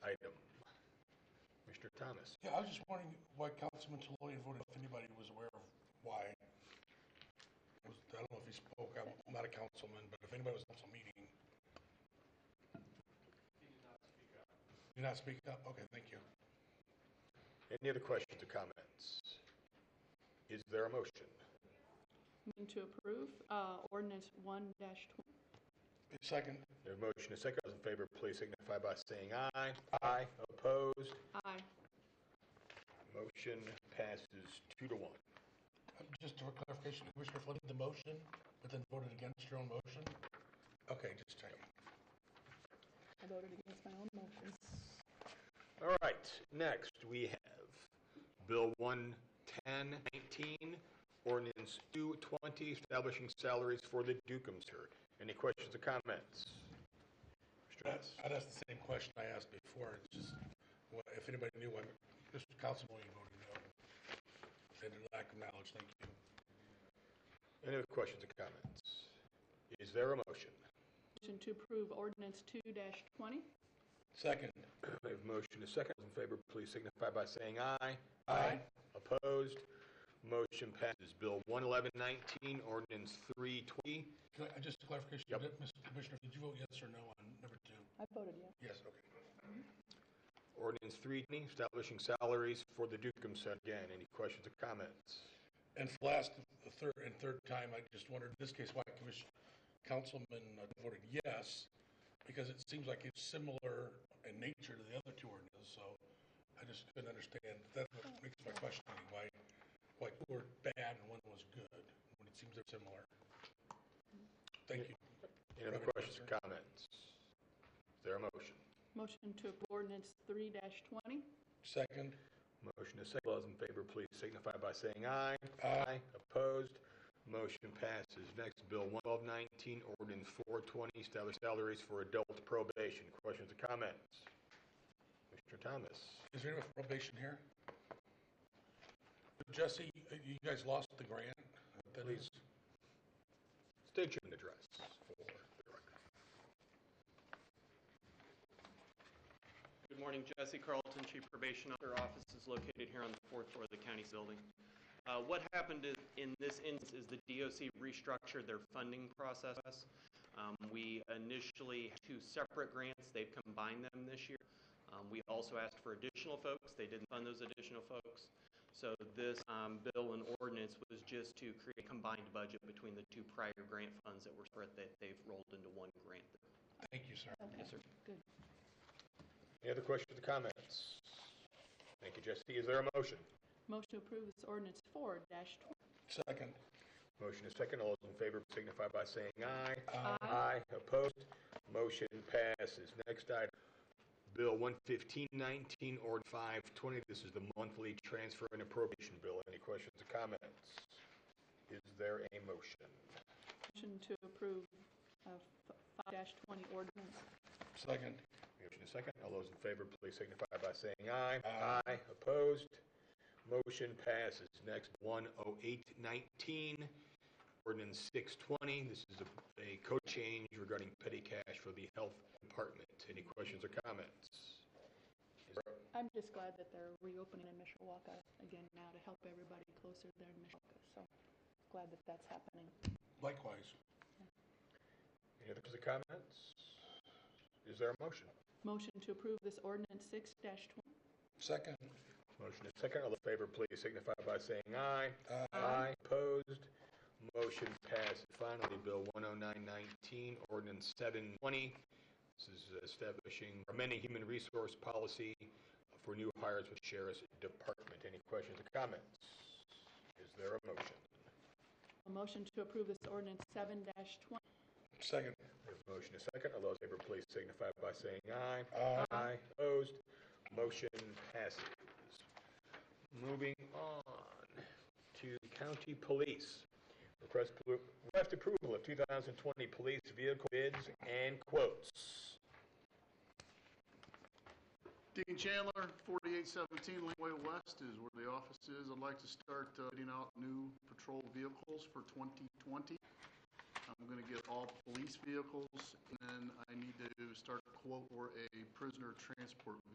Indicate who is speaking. Speaker 1: Thomas.
Speaker 2: Yeah, I was just wondering why Councilman Toloy voted, if anybody was aware of why. It was- I don't know if he spoke, I'm not a councilman, but if anybody was at council meeting. He did not speak up. Did not speak up, okay, thank you.
Speaker 1: Any other questions or comments? Is there a motion?
Speaker 3: Move to approve uh, ordinance 1-20.
Speaker 2: Second,
Speaker 1: There's a motion, a second. All those in favor, please signify by saying aye. Aye. Opposed?
Speaker 3: Aye.
Speaker 1: Motion passes two to one.
Speaker 2: um, just for clarification, Commissioner Flynn did the motion, but then voted against your own motion? Okay, just checking.
Speaker 3: I voted against my own motion.
Speaker 1: All right, next we have Bill 11019, ordinance 220, establishing salaries for the Dukeumster. Any questions or comments? Mr.
Speaker 2: I'd
Speaker 1: Nuss?
Speaker 2: I'd ask the same question I asked before, it's just, wha- if anybody knew why Mr. Councilman voted no. They did lack of knowledge, thank you.
Speaker 1: Any other questions or comments? Is there a motion?
Speaker 3: Motion to approve ordinance 2-20.
Speaker 2: Second.
Speaker 1: We have a motion to second. Those in favor, please signify by saying aye.
Speaker 2: Aye.
Speaker 1: Opposed? Motion passes. Bill 11119, ordinance 320.
Speaker 2: Can I, just clarification,
Speaker 1: Yep.
Speaker 2: did- Mr. Commissioner, did you vote yes or no on number two?
Speaker 3: I voted yes.
Speaker 2: Yes, okay.
Speaker 1: Ordinance 320, establishing salaries for the Dukem Center. Again, any questions or comments?
Speaker 2: And for last, the third, and third time, I just wondered, in this case, why Commissioner, Councilman uh, voted yes, because it seems like it's similar in nature to the other two ordinances, so I just couldn't understand. That's what makes my questioning, why, why two were bad and one was good, when it seems they're similar. Thank you.
Speaker 1: Any other questions or comments? Is there a motion?
Speaker 3: Motion to approve ordinance 3-20.
Speaker 2: Second?
Speaker 1: Motion is second. All those in favor, please signify by saying aye.
Speaker 2: Aye.
Speaker 1: Opposed? Motion passes. Next, Bill 1219, ordinance 420, establish salaries for adult probation. Questions or comments? Mr. Thomas?
Speaker 2: Is there anyone for probation here? Jesse, uh, you guys lost the grant? That is-
Speaker 1: State your address for the record.
Speaker 4: Good morning, Jesse Carlton, Chief Probation Officer. Office is located here on the fourth floor of the county's building. Uh, What happened is- in this instance is the DOC restructured their funding process. Um, We initially had two separate grants. They've combined them this year. Um, We also asked for additional folks. They didn't fund those additional folks. So this um, bill and ordinance was just to create a combined budget between the two prior grant funds that were separate that they've rolled into one grant.
Speaker 2: Thank you, sir.
Speaker 3: Okay.
Speaker 4: Yes, sir.
Speaker 3: Good.
Speaker 1: Any other questions or comments? Thank you, Jesse. Is there a motion?
Speaker 3: Motion to approve is ordinance 4-20.
Speaker 2: Second.
Speaker 1: Motion is second. All those in favor signify by saying aye.
Speaker 2: Aye.
Speaker 1: Opposed? Motion passes. Next item, Bill 11519, Ord 520. This is the monthly transfer and appropriation bill. Any questions or comments? Is there a motion?
Speaker 3: Motion to approve uh, f- 5-20 ordinance.
Speaker 2: Second.
Speaker 1: Motion is second. All those in favor, please signify by saying aye.
Speaker 2: Aye.
Speaker 1: Opposed? Motion passes. Next, 10819, ordinance 620. This is a- a code change regarding petty cash for the health department. Any questions or comments? Is there-
Speaker 3: I'm just glad that they're reopening in Mishawaka again now to help everybody closer there in Mishawaka. So glad that that's happening.
Speaker 2: Likewise.
Speaker 1: Any other comments? Is there a motion?
Speaker 3: Motion to approve this ordinance 6-20.
Speaker 2: Second.
Speaker 1: Motion is second. All those in favor, please signify by saying aye.
Speaker 2: Aye.
Speaker 1: Opposed? Motion passed. Finally, Bill 10919, Ordinance 720. This is establishing, amending human resource policy for new hires with Sheriff's Department. Any questions or comments? Is there a motion?
Speaker 3: A motion to approve this ordinance 7-20.
Speaker 2: Second.
Speaker 1: There's a motion is second. All those in favor, please signify by saying aye.
Speaker 2: Aye.
Speaker 1: Opposed? Motion passes. Moving on to county police. Request, request approval of 2020 police vehicle bids and quotes.
Speaker 5: Dean Chandler, 4817 Laneway West is where the office is. I'd like to start uh, bidding out new patrol vehicles for 2020. I'm going to get all police vehicles, and then I need to start a quote for a prisoner transport